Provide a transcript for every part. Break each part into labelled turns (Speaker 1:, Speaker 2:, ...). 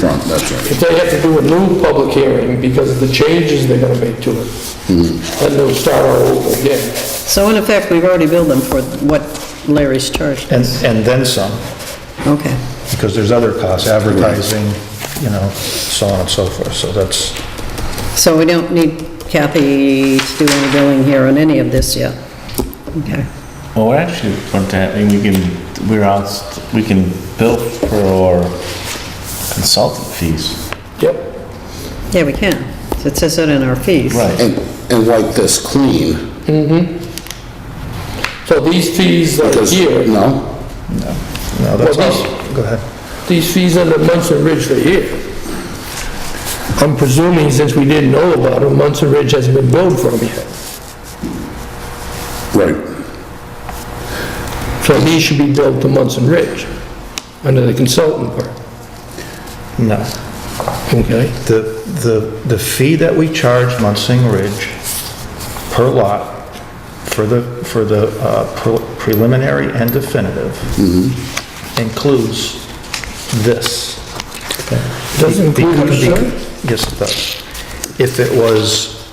Speaker 1: front, that's right.
Speaker 2: If they have to do a new public hearing because of the changes they're gonna make to it, then they'll start all over again.
Speaker 3: So in effect, we've already billed them for what Larry's charged
Speaker 4: And,
Speaker 3: us.
Speaker 4: and then some,
Speaker 3: Okay.
Speaker 4: because there's other costs, advertising, you know, so on and so forth, so that's,
Speaker 3: So we don't need Kathy to do any billing here on any of this yet? Okay.
Speaker 5: Well, we're actually, going to have- I mean, we can, we're out, we can bill for our consultant fees.
Speaker 2: Yep,
Speaker 3: Yeah, we can. It says that in our fees.
Speaker 1: And, and wipe this clean,
Speaker 2: so these fees are
Speaker 1: because,
Speaker 2: here,
Speaker 1: no?
Speaker 4: no, that's
Speaker 2: Well,
Speaker 4: all. Go ahead.
Speaker 2: these fees under Munson Ridge are here. I'm presuming since we didn't know about them, Munson Ridge hasn't been billed for them yet.
Speaker 1: Right,
Speaker 2: So these should be billed to Munson Ridge, under the consultant part,
Speaker 4: No.
Speaker 2: okay?
Speaker 4: The, the, the fee that we charge Munson Ridge per lot for the, for the uh, pre- preliminary and definitive includes this.
Speaker 2: Doesn't include
Speaker 4: Because-
Speaker 2: insurance?
Speaker 4: Yes, it does. If it was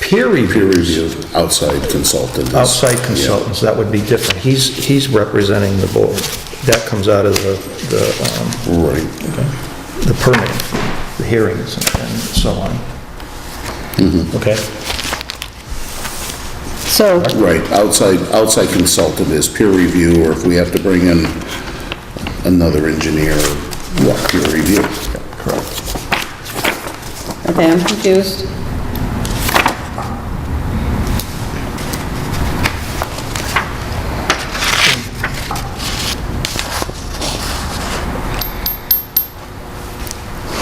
Speaker 4: peer
Speaker 1: peer
Speaker 4: reviewed,
Speaker 1: review, outside consultant.
Speaker 4: outside consultants, that would be different. He's, he's representing the board. That comes out of the, the, um,
Speaker 1: Right.
Speaker 4: the permit, the hearings and and so on. Okay?
Speaker 3: So,
Speaker 1: Right, outside, outside consultant is peer review, or if we have to bring in another engineer, what, peer review? Correct.
Speaker 3: okay, I'm confused.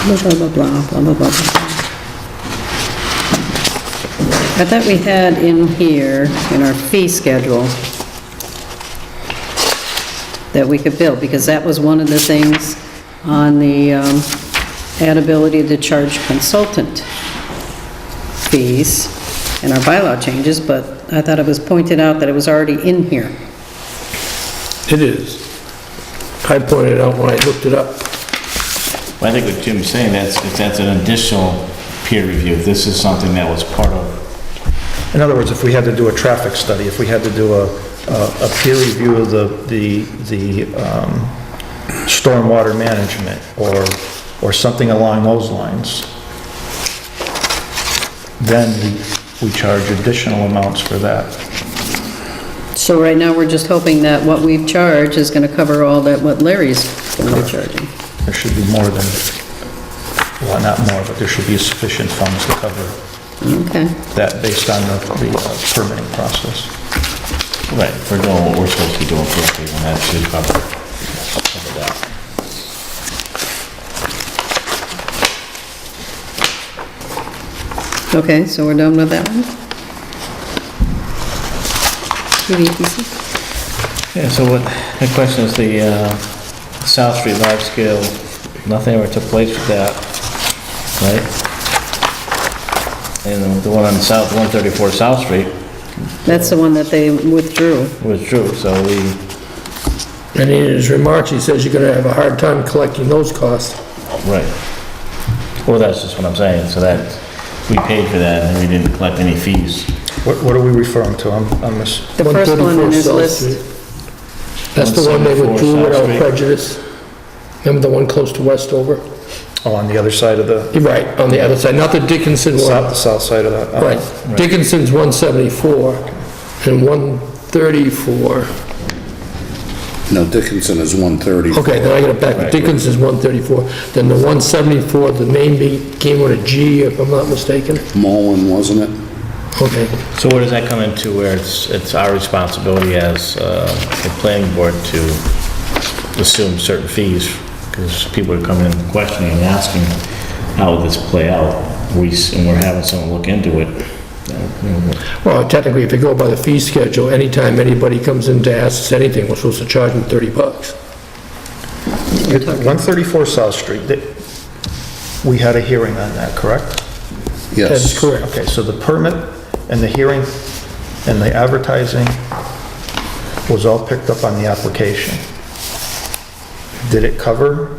Speaker 3: Blah, blah, blah, blah, blah, blah, blah, blah. I thought we had in here, in our fee schedule, that we could bill, because that was one of the things on the um, ad ability to charge consultant fees in our bylaw changes, but I thought it was pointed out that it was already in here.
Speaker 2: It is. I pointed it out when I looked it up.
Speaker 5: Well, I think what Jim's saying, that's, that's an additional peer review. This is something that was part of,
Speaker 4: In other words, if we had to do a traffic study, if we had to do a, a a peer review of the, the, the um, stormwater management or, or something along those lines, then we- we charge additional amounts for that.
Speaker 3: So right now, we're just hoping that what we've charged is going to cover all that what Larry's going to be charging.
Speaker 4: There should be more than, well, not more, but there should be sufficient funds to cover
Speaker 3: Okay.
Speaker 4: that based on the the, uh, permitting process.
Speaker 5: right, we're doing what we're supposed to be doing for people, and that should cover cover that.
Speaker 3: Okay, so we're done with that one? PVPC?
Speaker 5: Yeah, so what, the question is the, uh, South Street large scale, nothing ever took place with that, right? And the one on South, 134 South Street
Speaker 3: That's the one that they withdrew.
Speaker 5: was true, so we,
Speaker 2: And in his remarks, he says you're gonna have a hard time collecting those costs.
Speaker 5: right. Well, that's just what I'm saying, so that, we paid for that and we didn't collect any fees.
Speaker 4: What what are we referring to? I'm I'm miss,
Speaker 3: The first one in
Speaker 2: 134
Speaker 3: his
Speaker 2: South
Speaker 3: list.
Speaker 2: Street. That's the one they
Speaker 5: 174
Speaker 2: withdrew without
Speaker 5: South Street.
Speaker 2: prejudice. Remember the one close to Westover?
Speaker 4: oh, on the other side of the,
Speaker 2: You're Right, on the other side, not the Dickinson
Speaker 4: south,
Speaker 2: one.
Speaker 4: the south side of the... uh,
Speaker 2: Right, Dickinson's 174 and 134.
Speaker 1: No, Dickinson is 130.
Speaker 2: Okay, then I got it back. Dickinson's 134, then the 174, the name became with a G, if I'm not mistaken.
Speaker 1: Mullen, wasn't it?
Speaker 2: Okay,
Speaker 5: So where does that come into where it's, it's our responsibility as, uh, the planning board to assume certain fees? Because people are coming in questioning and asking, how would this play out? We, s- and we're having someone look into it.
Speaker 2: well, technically, if you go by the fee schedule, anytime anybody comes in to ask us anything, we're supposed to charge them 30 bucks.
Speaker 4: it- 134 South Street, that- we had a hearing on that, correct?
Speaker 1: Yes.
Speaker 2: That is correct.
Speaker 4: Okay, so the permit and the hearing and the advertising was all picked up on the application. Did it cover